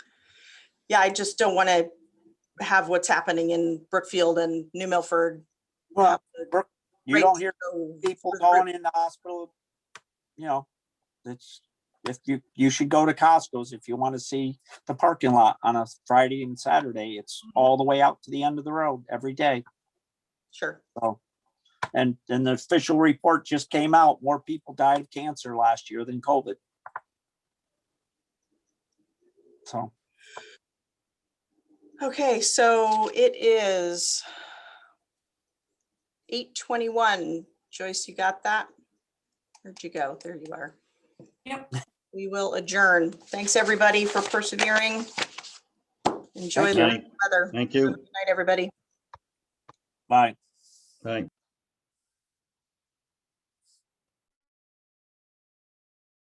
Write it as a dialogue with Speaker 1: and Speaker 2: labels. Speaker 1: yeah, I just don't want to have what's happening in Brookfield and New Milford.
Speaker 2: Well, Brooke, you
Speaker 1: Right.
Speaker 2: don't hear
Speaker 1: So,
Speaker 2: people
Speaker 1: Right.
Speaker 2: going in the hospital. You know, it's, if you, you should go to Costco's if you want to see the parking lot on a Friday and Saturday. It's all the way out to the end of the road every day.
Speaker 1: Sure.
Speaker 2: And, and the official report just came out. More people died of cancer last year than COVID. So,
Speaker 1: Okay, so it is eight twenty-one. Joyce, you got that? Where'd you go? There you are.
Speaker 3: Yep.
Speaker 1: We will adjourn. Thanks, everybody, for persevering. Enjoy
Speaker 2: Thank
Speaker 1: the
Speaker 4: you.
Speaker 1: weather.
Speaker 4: Thank
Speaker 1: Good
Speaker 4: you.
Speaker 1: night, everybody.
Speaker 2: bye.
Speaker 4: Bye.